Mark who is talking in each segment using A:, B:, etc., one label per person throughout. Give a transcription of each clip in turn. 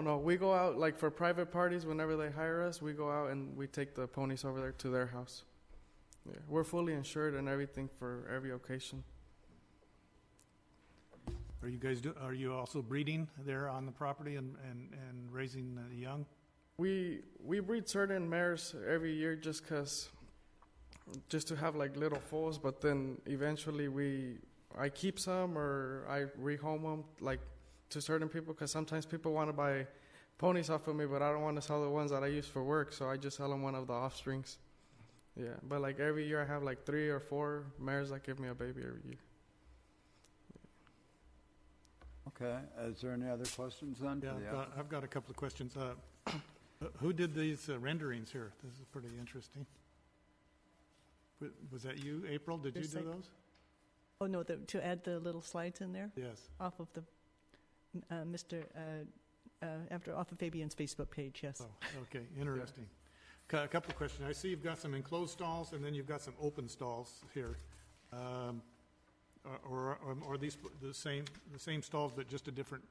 A: No, we go out, like for private parties, whenever they hire us, we go out and we take the ponies over there to their house. Yeah, we're fully insured and everything for every occasion.
B: Are you guys do, are you also breeding there on the property and, and, and raising the young?
A: We we breed certain mares every year just 'cause just to have like little foals, but then eventually we I keep some or I rehome them like to certain people 'cause sometimes people want to buy ponies off of me, but I don't want to sell the ones that I use for work, so I just sell them one of the offsprings. Yeah, but like every year I have like three or four mares that give me a baby every year.
C: Okay, is there any other questions then? for
B: Yeah,
C: the
B: I've got- I've got a couple of questions. Uh, Who did these uh, renderings here? This is pretty interesting. Wa- Was that you, April? Did you
D: Just
B: do
D: like-
B: those?
D: Oh, no, the, to add the little slides in there
B: Yes.
D: off of the, uh, Mr., uh, uh, after, off of Fabian's Facebook page, yes.
B: Oh, okay, interesting. Cou- A couple of questions. I see you've got some enclosed stalls, and then you've got some open stalls here. Um, Or, or or are these the same, the same stalls, but just a different,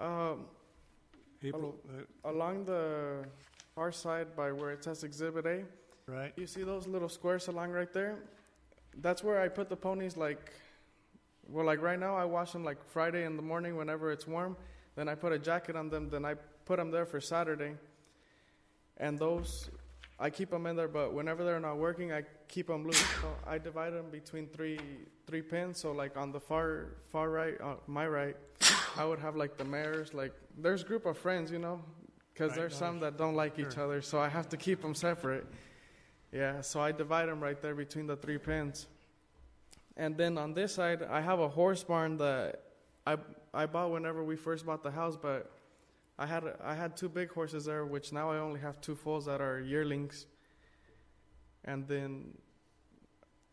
B: uh,
A: Um,
B: April, uh,
A: along the far side by where it says Exhibit A,
B: Uh, right?
A: You see those little squares along right there? That's where I put the ponies like well like right now I wash them like Friday in the morning whenever it's warm, then I put a jacket on them, then I put them there for Saturday. And those I keep them in there but whenever they're not working, I keep them loose. So I divide them between three three pins, so like on the far far right, uh, my right, I would have like the mares, like there's group of friends, you know, cuz
B: Right,
A: there's
B: no,
A: some that don't like each
B: sure.
A: other, so I have to keep them separate. Yeah, so I divide them right there between the three pins. And then on this side, I have a horse barn that I I bought whenever we first bought the house, but I had I had two big horses there, which now I only have two foals that are yearlings. And then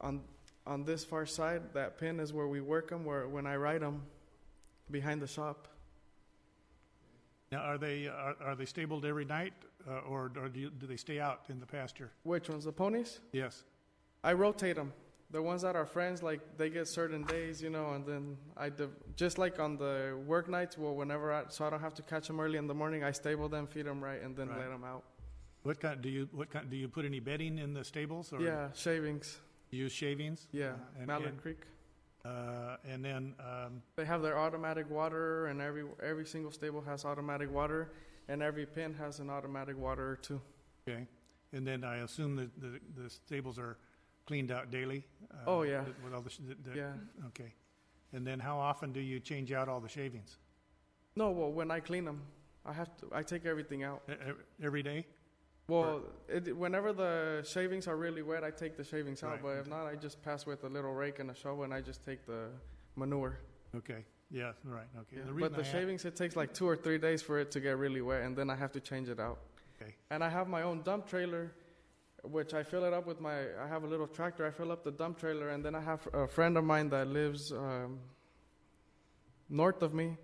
A: on on this far side, that pin is where we work them, where when I ride them behind the shop.
B: Now, are they, are are they stabled every night, uh, or or do you- do they stay out in the pasture?
A: Which ones, the ponies?
B: Yes.
A: I rotate them. The ones that are friends, like they get certain days, you know, and then I div- just like on the work nights, well, whenever I so I don't have to catch them early in the morning, I stable them, feed them right, and then
B: Right.
A: let them out.
B: What kind, do you, what kind, do you put any bedding in the stables? or
A: yeah, shavings.
B: do you Use shavings?
A: Yeah,
B: Uh, and-
A: Mallard
B: and,
A: Creek.
B: uh, And then, um,
A: They have their automatic water, and every every single stable has automatic water, and every pen has an automatic water too.
B: Okay, and then I assume that the, the stables are cleaned out daily? uh,
A: Oh, yeah.
B: With all the, sh- the- the-
A: Yeah.
B: okay. And then how often do you change out all the shavings?
A: No, well, when I clean them, I have to. I take everything out.
B: E- e- Every day?
A: Well, it, whenever the shavings are really wet, I take the shavings out.
B: Right,
A: But if
B: okay.
A: not, I just pass with a little rake and a shovel, and I just take the manure.
B: Okay, yeah, right, okay.
A: Yeah.
B: The reason
A: But the
B: I a-
A: shavings, it takes like two or three days for it to get really wet, and then I have to change it out.
B: Okay.
A: And I have my own dump trailer, which I fill it up with my. I have a little tractor. I fill up the dump trailer, and then I have a friend of mine that lives um, north of me,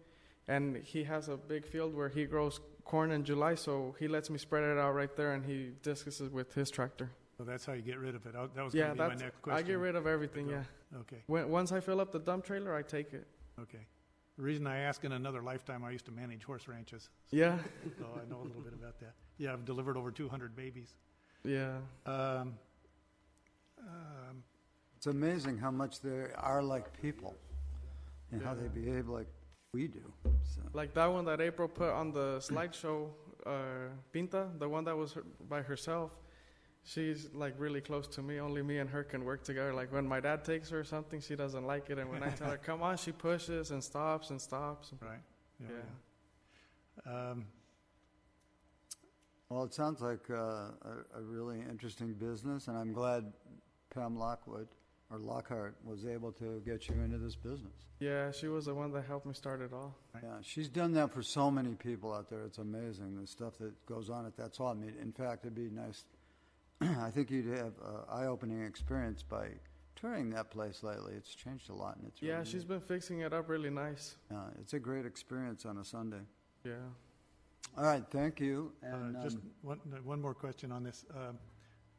A: and he has a big field where he grows corn in July. So he lets me spread it out right there, and he discus it with his tractor.
B: Well, that's how you get rid of it. I- That was
A: Yeah,
B: gonna be my
A: that's.
B: next
A: I
B: question.
A: get rid of everything.
B: Go.
A: Yeah.
B: Okay,
A: When, once I fill up the dump trailer, I take it.
B: okay. The reason I ask, in another lifetime, I used to manage horse ranches,
A: Yeah.
B: so I know a little bit about that. Yeah, I've delivered over two hundred babies.
A: Yeah.
B: Um, um,
C: It's amazing how much they are like people and how they
A: Yeah.
C: behave like we do, so.
A: Like that one that April put on the slideshow, uh, Pinta, the one that was her, by herself. She's like really close to me. Only me and her can work together. Like when my dad takes her or something, she doesn't like it, and when I tell her come on, she pushes and stops and stops.
B: Right.
A: Yeah.
B: yeah. Um,
C: Well, it sounds like uh, a a really interesting business, and I'm glad Pam Lockwood, or Lockhart, was able to get you into this business.
A: Yeah, she was the one that helped me start it all.
B: Right.
C: Yeah, she's done that for so many people out there. It's amazing, the stuff that goes on at that salt meet. In fact, it'd be nice, I think you'd have an eye-opening experience by touring that place lately. It's changed a lot, and it's
A: Yeah,
C: really-
A: she's been fixing it up really nice.
C: Yeah, Uh, it's a great experience on a Sunday.
A: Yeah.
C: All right, thank you.
B: Uh,
C: And
B: Just
C: um,
B: one, no, one more question on this. Um,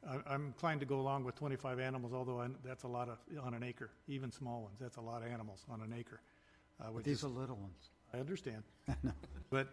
B: I- I'm inclined to go along with 25 animals, although I- that's a lot of, on an acre, even small ones, that's a lot of animals on an acre. uh, which
C: these
B: is-
C: are little ones.
B: I understand. But